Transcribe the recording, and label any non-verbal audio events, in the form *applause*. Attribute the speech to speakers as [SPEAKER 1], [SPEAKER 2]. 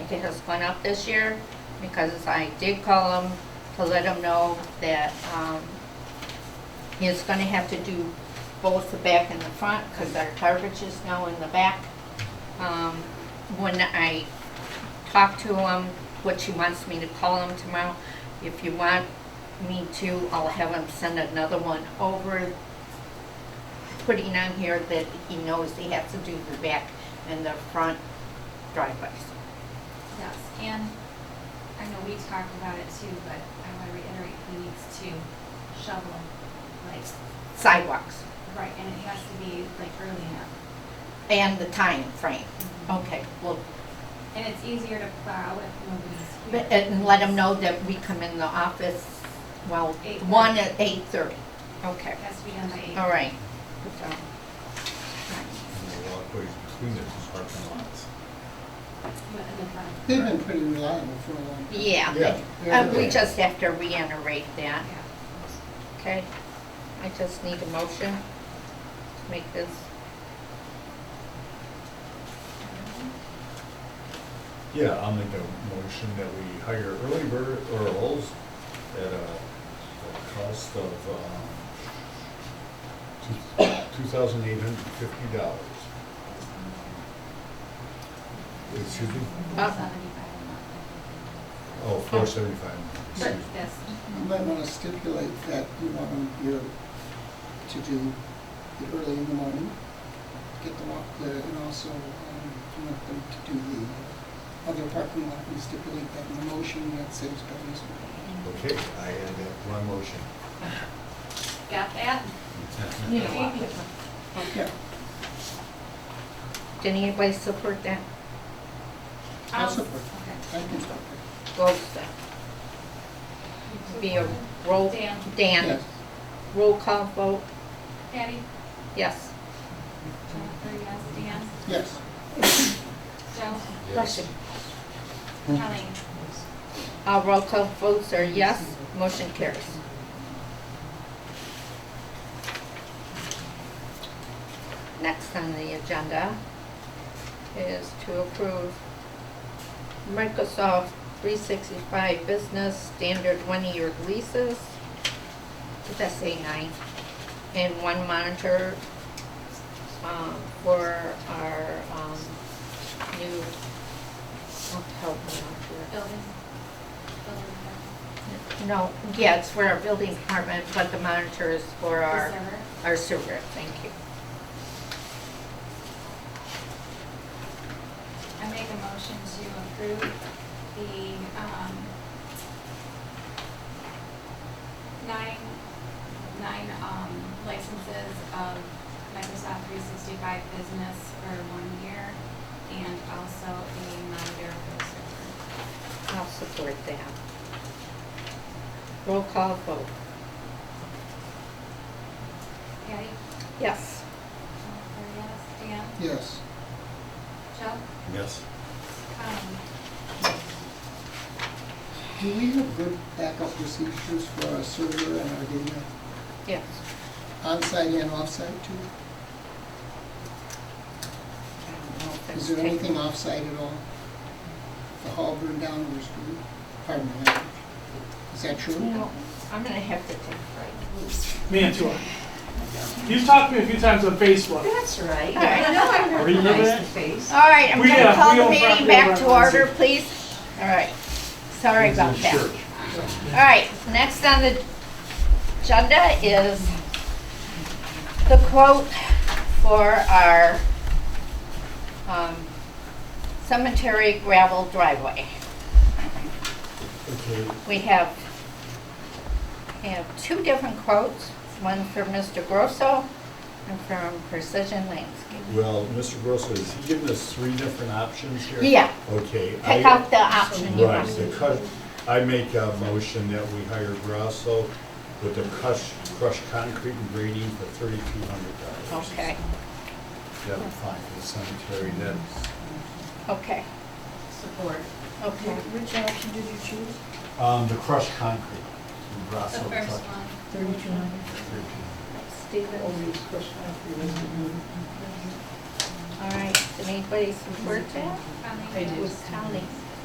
[SPEAKER 1] everything has gone up this year, because I did call him to let him know that, um, he's gonna have to do both the back and the front, because our garbage is now in the back. Um, when I talk to him, what she wants me to call him tomorrow. If you want me to, I'll have him send another one over, putting on here that he knows he has to do the back and the front driveways.
[SPEAKER 2] Yes, and I know we talked about it too, but I want to reiterate, he needs to shovel, like,
[SPEAKER 1] Sidewalks
[SPEAKER 2] right, and it has to be like early enough.
[SPEAKER 1] and the time frame. Okay, well,
[SPEAKER 2] And it's easier to plow if nobody's here.
[SPEAKER 1] uh, and let him know that we come in the office, well,
[SPEAKER 2] Eight
[SPEAKER 1] one
[SPEAKER 2] thirty.
[SPEAKER 1] at eight thirty. Okay,
[SPEAKER 2] It has to be done by eight.
[SPEAKER 1] all right. So,
[SPEAKER 3] There's a lot of ways between the two parking lots.
[SPEAKER 2] But in the front.
[SPEAKER 4] They've
[SPEAKER 1] Uh,
[SPEAKER 4] been pretty reliable for a long time.
[SPEAKER 1] Yeah.
[SPEAKER 4] Yeah.
[SPEAKER 1] Uh, we just have to reiterate that.
[SPEAKER 2] Yeah.
[SPEAKER 1] Okay, I just need a motion to make this.
[SPEAKER 3] Yeah, I'll make a motion that we hire early bird earls at a a cost of um, two thousand eight hundred and fifty dollars. Excuse me?
[SPEAKER 1] Uh,
[SPEAKER 2] Seventy-five a month, I
[SPEAKER 3] Oh, four seventy-five, excuse
[SPEAKER 2] think.
[SPEAKER 3] me.
[SPEAKER 2] But this,
[SPEAKER 4] You might want to stipulate that you want them here to do it early in the morning, get the walk there, and also um, you want them to do the other parking lot. We stipulate that in the motion, that saves dollars.
[SPEAKER 3] Okay, I add that to my motion.
[SPEAKER 2] got that?
[SPEAKER 1] You know what?
[SPEAKER 4] Yeah,
[SPEAKER 1] Did anybody support that?
[SPEAKER 4] I'll
[SPEAKER 2] Um,
[SPEAKER 4] support.
[SPEAKER 2] okay.
[SPEAKER 4] I can stop there.
[SPEAKER 1] Roll stop. uh, Be a roll.
[SPEAKER 2] Dan.
[SPEAKER 1] Dan,
[SPEAKER 4] Yes.
[SPEAKER 1] roll call vote,
[SPEAKER 2] Patty?
[SPEAKER 1] yes.
[SPEAKER 2] Jennifer, yes, Dan?
[SPEAKER 4] Yes,
[SPEAKER 2] Joe?
[SPEAKER 1] Bless you.
[SPEAKER 2] Colleen?
[SPEAKER 1] All roll call votes are yes, motion carries. Next on the agenda is to approve Microsoft 365 Business Standard one-year leases. Did I say nine? And one monitor um, for our um, new, oh, help me out here.
[SPEAKER 2] Building? Building.
[SPEAKER 1] No, yeah, it's for our building department, but the monitor is for
[SPEAKER 2] The
[SPEAKER 1] our,
[SPEAKER 2] server?
[SPEAKER 1] our server, thank you.
[SPEAKER 2] I make a motion to approve the, um, nine, nine, um, licenses of Microsoft three sixty-five business for one year and also a monitor for the server.
[SPEAKER 1] I'll support that. Roll call vote.
[SPEAKER 2] Patty?
[SPEAKER 1] Yes.
[SPEAKER 2] Jennifer, yes. Dan?
[SPEAKER 4] yes.
[SPEAKER 2] Joe? Um,
[SPEAKER 3] Yes.
[SPEAKER 2] Colleen?
[SPEAKER 4] Do we have good backup procedures for our server and our data,
[SPEAKER 1] Yes.
[SPEAKER 4] onsite and offsite too?
[SPEAKER 1] I don't know if
[SPEAKER 4] Is
[SPEAKER 1] that's
[SPEAKER 4] there
[SPEAKER 1] taken-
[SPEAKER 4] anything offsite at all? The hall burned down, or something? pardon my language. Is that true?
[SPEAKER 1] No, I'm gonna have to take a
[SPEAKER 5] Mantua. You've talked to me a few times on Facebook.
[SPEAKER 6] That's right.
[SPEAKER 1] Alright.
[SPEAKER 6] I know I
[SPEAKER 7] *laughs*
[SPEAKER 5] Remember
[SPEAKER 6] recognize
[SPEAKER 5] that?
[SPEAKER 6] the face.
[SPEAKER 1] break. All right, I'm
[SPEAKER 5] We,
[SPEAKER 1] gonna
[SPEAKER 5] uh,
[SPEAKER 1] call
[SPEAKER 5] we
[SPEAKER 1] the
[SPEAKER 5] don't
[SPEAKER 1] meeting
[SPEAKER 5] properly
[SPEAKER 1] back to
[SPEAKER 5] reference
[SPEAKER 1] order,
[SPEAKER 5] it.
[SPEAKER 1] please. All right, sorry about that. All right, next on the agenda is the quote for our um, cemetery gravel driveway.
[SPEAKER 3] Okay,
[SPEAKER 1] We have, we have two different quotes, one from Mr. Grosso and from Precision Landscape.
[SPEAKER 3] well, Mr. Grosso, is he giving us three different options here?
[SPEAKER 1] Yeah.
[SPEAKER 3] Okay.
[SPEAKER 1] Pick
[SPEAKER 3] I-
[SPEAKER 1] out the option you
[SPEAKER 3] Right,
[SPEAKER 1] want.
[SPEAKER 3] the cut, I make a motion that we hire Grasso with the crush, crushed concrete and grading for thirty-two hundred dollars.
[SPEAKER 1] Okay,
[SPEAKER 3] That'll find the cemetery, then,
[SPEAKER 1] okay,
[SPEAKER 6] Support.
[SPEAKER 1] okay.
[SPEAKER 7] Which option did you choose?
[SPEAKER 3] um, the crushed concrete, Grasso.
[SPEAKER 2] The
[SPEAKER 3] crushed
[SPEAKER 2] first one.
[SPEAKER 7] Thirty-two hundred.
[SPEAKER 3] 13.
[SPEAKER 1] Steven,
[SPEAKER 7] Always question after this.
[SPEAKER 1] all right, did anybody support that?
[SPEAKER 2] Colleen?
[SPEAKER 7] I do.
[SPEAKER 1] It was Colleen.